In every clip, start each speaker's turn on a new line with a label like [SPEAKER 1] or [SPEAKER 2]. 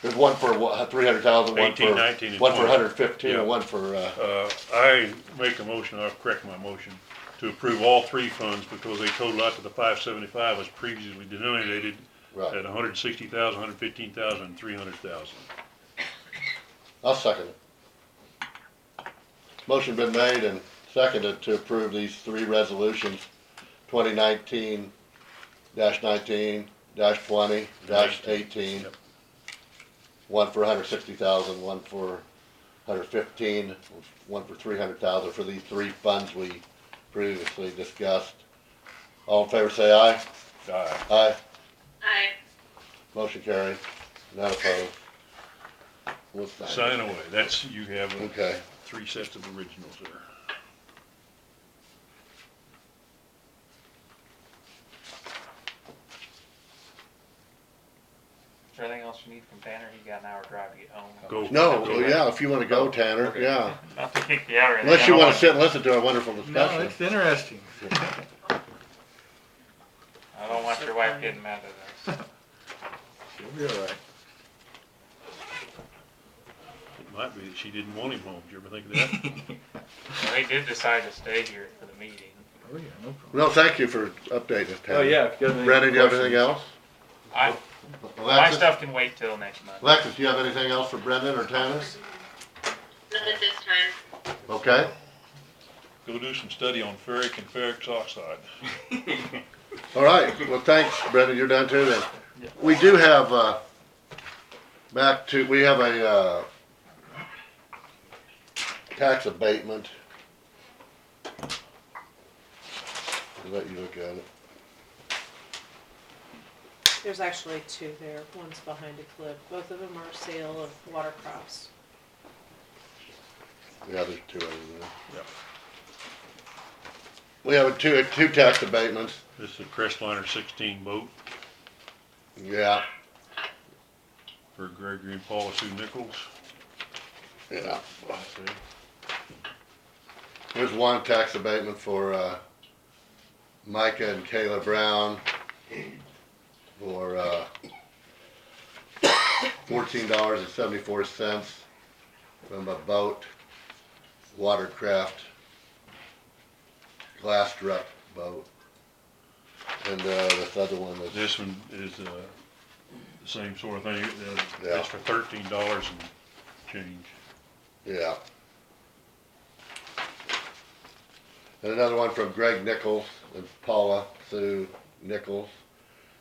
[SPEAKER 1] There's one for what, three hundred thousand, one for,
[SPEAKER 2] 18, 19, and
[SPEAKER 1] one for
[SPEAKER 2] 20.
[SPEAKER 1] hundred fifteen,
[SPEAKER 2] Yeah.
[SPEAKER 1] and one for, uh,
[SPEAKER 2] Uh, I make a motion, I'll correct my motion, to approve all three funds because they total out to the five seventy-five was previously denominated at
[SPEAKER 1] right.
[SPEAKER 2] a hundred sixty thousand, hundred fifteen thousand, and three hundred thousand.
[SPEAKER 1] I'll second it. Motion been made and seconded to approve these three resolutions, twenty nineteen nineteen twenty eighteen.
[SPEAKER 2] Yep.
[SPEAKER 1] One for 160,000, one for 115, one for 300,000 for these three funds we previously discussed. All in favor, say aye.
[SPEAKER 2] Aye.
[SPEAKER 1] Aye.
[SPEAKER 3] I,
[SPEAKER 1] Motion carried. None opposed. We'll
[SPEAKER 2] Sign away, that's, you have uh,
[SPEAKER 1] Okay.
[SPEAKER 2] three sets of originals there.
[SPEAKER 4] Is there anything else you need from Tanner? You got an hour drive to get home.
[SPEAKER 2] Go.
[SPEAKER 1] No,
[SPEAKER 2] Go
[SPEAKER 1] well, yeah, if you wanna go, Tanner, yeah.
[SPEAKER 4] Not to kick you out or anything.
[SPEAKER 1] Unless you
[SPEAKER 4] I don't
[SPEAKER 1] wanna sit and listen to a wonderful
[SPEAKER 5] No,
[SPEAKER 1] discussion.
[SPEAKER 5] it's interesting.
[SPEAKER 4] I don't want your wife getting mad at us.
[SPEAKER 5] She'll be all right.
[SPEAKER 2] It might be that she didn't want him home, did you ever think of that?
[SPEAKER 4] And We did decide to stay here for the meeting.
[SPEAKER 5] Oh, yeah, no problem.
[SPEAKER 1] No, thank you for updating us, Tanner.
[SPEAKER 6] Oh, yeah, if you got any.
[SPEAKER 1] Brendan, do you have anything
[SPEAKER 6] questions.
[SPEAKER 1] else?
[SPEAKER 4] I, my
[SPEAKER 1] Alexis,
[SPEAKER 4] stuff can wait till next month.
[SPEAKER 1] Alexis, do you have anything else for Brendan or Tanner?
[SPEAKER 3] not at this time.
[SPEAKER 1] Okay,
[SPEAKER 2] Go do some study on ferric and ferric oxide.
[SPEAKER 1] all right, well, thanks, Brendan, you're done too then. We do have, uh, back to, we have a, uh, tax abatement. I'll Let you look at it.
[SPEAKER 7] There's actually two there, one's behind a cliff, both of them are sale of water crops.
[SPEAKER 1] Yeah, there's two of them there.
[SPEAKER 2] Yep.
[SPEAKER 1] We have two, two tax abatements,
[SPEAKER 2] This is a Crestliner sixteen boat
[SPEAKER 1] yeah,
[SPEAKER 2] for Gregory and Paula Sue Nichols.
[SPEAKER 1] yeah. There's one tax abatement for, uh, Micah and Kayla Brown for, uh, fourteen dollars and seventy-four cents from a boat, watercraft, glass truck boat. And, uh, this other one was.
[SPEAKER 2] This one is, uh, the same sort of thing, uh,
[SPEAKER 1] Yeah.
[SPEAKER 2] it's for thirteen dollars and change.
[SPEAKER 1] Yeah. And another one from Greg Nichols and Paula Sue Nichols.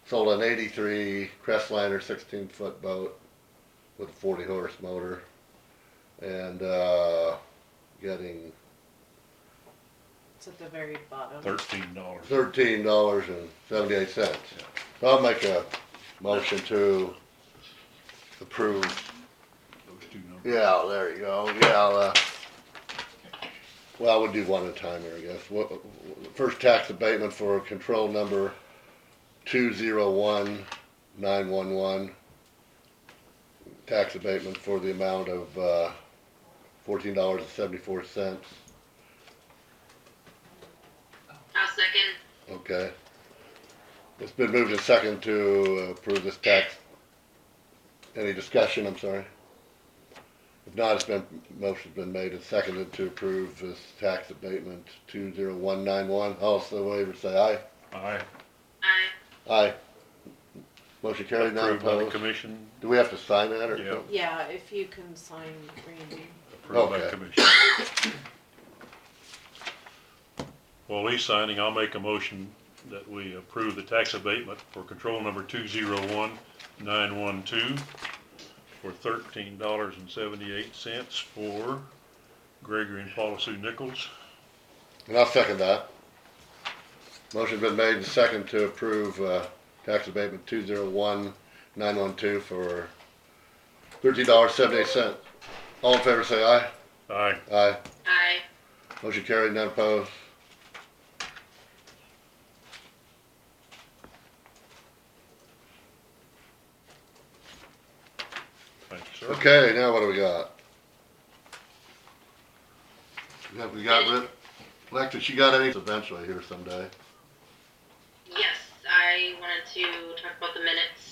[SPEAKER 1] Sold an eighty-three Crestliner sixteen foot boat with a forty horse motor. And, uh, getting
[SPEAKER 7] It's at the very bottom.
[SPEAKER 2] thirteen dollars.
[SPEAKER 1] thirteen dollars and seventy-eight cents. I'll make a motion to approve
[SPEAKER 2] Those two numbers.
[SPEAKER 1] Yeah, there you go, yeah, uh, well, we'll do one at a time here, I guess. Wha- wha- First tax abatement for control number two zero one nine one one. Tax abatement for the amount of, uh, fourteen dollars and seventy-four cents,
[SPEAKER 3] I'll second.
[SPEAKER 1] okay. It's been moved and second to approve this tax. Any discussion, I'm sorry? If not, it's been, motion's been made and seconded to approve this tax abatement two zero one nine one. Also, waiver say aye.
[SPEAKER 2] I
[SPEAKER 3] I,
[SPEAKER 1] Aye. Motion carried, not
[SPEAKER 2] approved by the
[SPEAKER 1] opposed.
[SPEAKER 2] commission,
[SPEAKER 1] Do we have to sign that or?
[SPEAKER 2] Yeah.
[SPEAKER 7] Yeah, if you can sign Randy.
[SPEAKER 2] approved by the
[SPEAKER 1] Okay.
[SPEAKER 2] commission. While he's signing, I'll make a motion that we approve the tax abatement for control number two zero one nine one two for thirteen dollars and seventy-eight cents for Gregory and Paula Sue Nichols.
[SPEAKER 1] And I'll second that. Motion's been made and seconded to approve, uh, tax abatement two zero one nine one two for thirteen dollars seventy-eight cent. All in favor say aye.
[SPEAKER 2] Aye.
[SPEAKER 1] Aye.
[SPEAKER 3] I,
[SPEAKER 1] Motion carried, none opposed.
[SPEAKER 2] Thank you, sir.
[SPEAKER 1] Okay, now what do we got? Yeah, we got rid, Alexis, you got any eventually here someday?
[SPEAKER 3] yes, I wanted to talk about the minutes